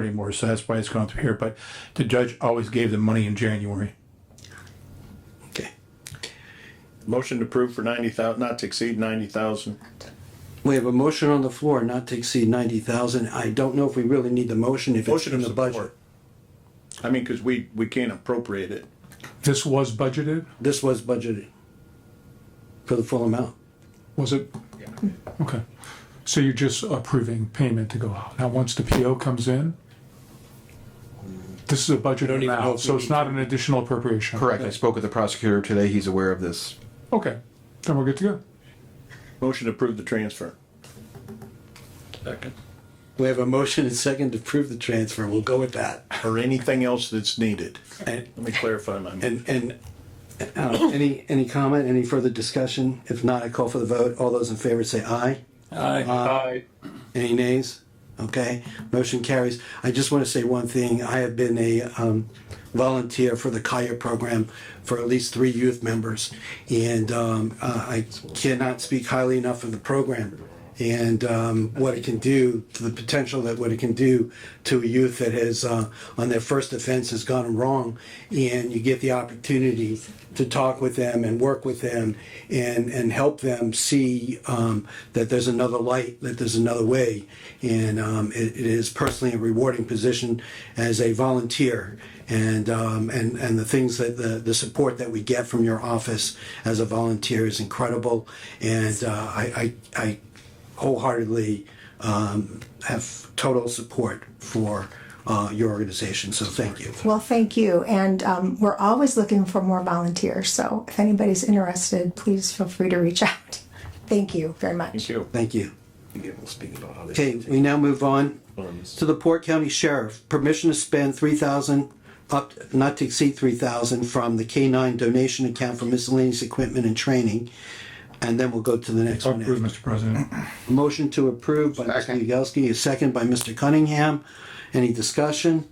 anymore, so that's why it's gone through here, but the judge always gave them money in January. Okay. Motion to approve for ninety thousand, not to exceed ninety thousand. We have a motion on the floor not to exceed ninety thousand. I don't know if we really need the motion if it's Motion in of the budget. support. I mean, cause we, we can't appropriate it. This was budgeted? This was budgeted for the full amount. Was it? Okay. So you're just approving payment to go out. Now, once the PO comes in, this is a budget even know if we amount, so it's need not an additional appropriation. Correct. I spoke with the prosecutor today. He's aware of this. Okay, then we're good to go. Motion to approve the transfer. We have a motion and second to approve the transfer. We'll go with that. Or anything else that's needed. And, Let me clarify my, and, and, uh, any, any comment, any further discussion? If not, I call for the vote. All those in favor say aye. Uh, Aye. Any nays? Okay, motion carries. I just want to say one thing. I have been a um, volunteer for the Kaya program for at least three youth members. And um, uh, I cannot speak highly enough of the program and um, what it can do, to the potential that what it can do to a youth that has, uh, on their first offense has gone wrong. And you get the opportunity to talk with them and work with them and, and help them see um, that there's another light, that there's another way. And um, it, it is personally a rewarding position as a volunteer. And, um, and, and the things that the, the support that we get from your office as a volunteer is incredible. And uh, I, I, I wholeheartedly um, have total support for uh, your organization. So thank you. Well, thank you. And um, we're always looking for more volunteers. So if anybody's interested, please feel free to reach out. Thank you very much. thank you. Thank you. Okay, we now move on to the Port County Sheriff. Permission to spend three thousand, up, not to exceed three thousand from the K nine donation account for miscellaneous equipment and training. And then we'll go to the next one. Approved, after. Mr. President. Motion to approve by Mr. Yagowski, a second by Mr. Cunningham. Any discussion?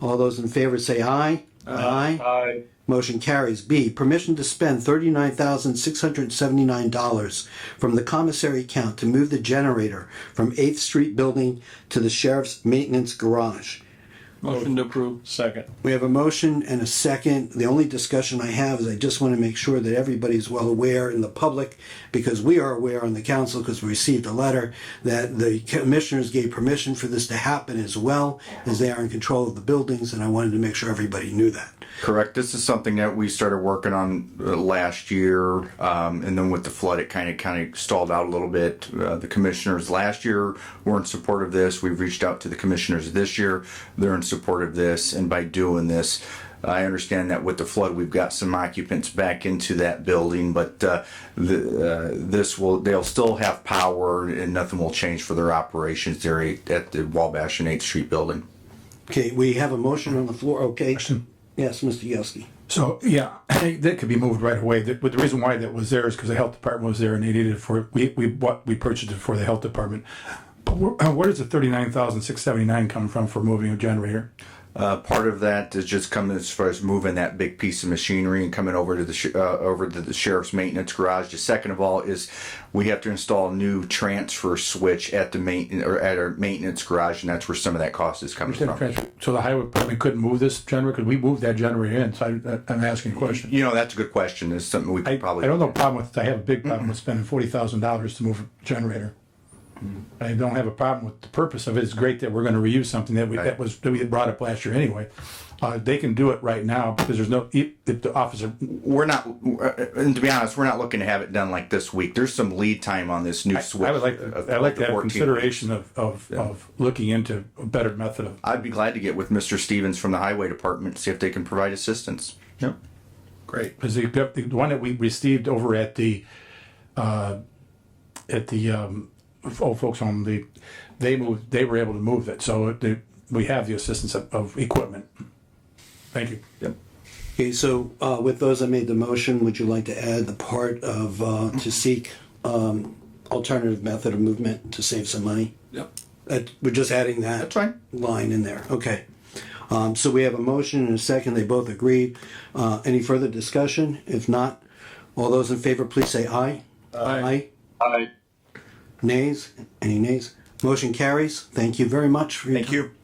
All those in favor say aye. Aye. Aye. Motion carries. B, permission to spend thirty-nine thousand six hundred seventy-nine dollars from the commissary account to move the generator from Eighth Street Building to the sheriff's maintenance garage. Motion to approve. Second. We have a motion and a second. The only discussion I have is I just want to make sure that everybody's well aware in the public, because we are aware on the council, because we received a letter that the commissioners gave permission for this to happen as well, as they are in control of the buildings, and I wanted to make sure everybody knew that. Correct. This is something that we started working on uh, last year, um, and then with the flood, it kind of kind of stalled out a little bit. Uh, the commissioners last year were in support of this. We've reached out to the commissioners this year; they're in support of this, and by doing this. I understand that with the flood, we've got some occupants back into that building, but uh, the, uh, this will—they'll still have power, and nothing will change for their operations there at the Wabash and Eighth Street building. Okay, we have a motion on the floor, okay? Yes, Mr. Yosky. So, yeah, that could be moved right away. The- But the reason why that was there is because the health department was there and they needed it for, we, we bought, we purchased it for the health department. But where, uh, where does the thirty-nine thousand six seventy-nine come from for moving a generator? Uh, part of that is just coming as far as moving that big piece of machinery and coming over to the sh- uh, over to the sheriff's maintenance garage. The second of all is we have to install a new transfer switch at the main or at our maintenance garage, and that's where some of that cost is coming from. So the highway department couldn't move this generator, because we moved that generator in, so I, I'm asking a question. You know, that's a good question. It's something we could I, probably I don't have a problem with, I have a big problem with spending forty thousand dollars to move a generator. Mm-hmm. I don't have a problem with the purpose of it. It's great that we're gonna reuse something that we, that was, that we had brought up last year anyway. Uh, they can do it right now because there's no, if if the officer, We're not, uh, and to be honest, we're not looking to have it done like this week. There's some lead time on this new switch. I would like, of- I'd like of to have 14 weeks. consideration of, of, of looking into a better method of. I'd be glad to get with Mr. Stevens from the highway department see if they can provide assistance. Yep. Great. Because the, the one that we received over at the, uh, at the, um, old folks home, the, they moved, they were able to move it, so they, we have the assistance of, of equipment. Thank you. Yep. Okay, so uh, with those, I made the motion. Would you like to add the part of, uh, to seek um, alternative method of movement to save some money? Yep. That- We're just adding that. That's fine. Line in there, okay. Um, So we have a motion and a second. They both agreed. Uh, Any further discussion? If not, all those in favor, please say aye. Aye. Aye. Nays? Any nays? Motion carries. Thank you very much. for your Thank you. time.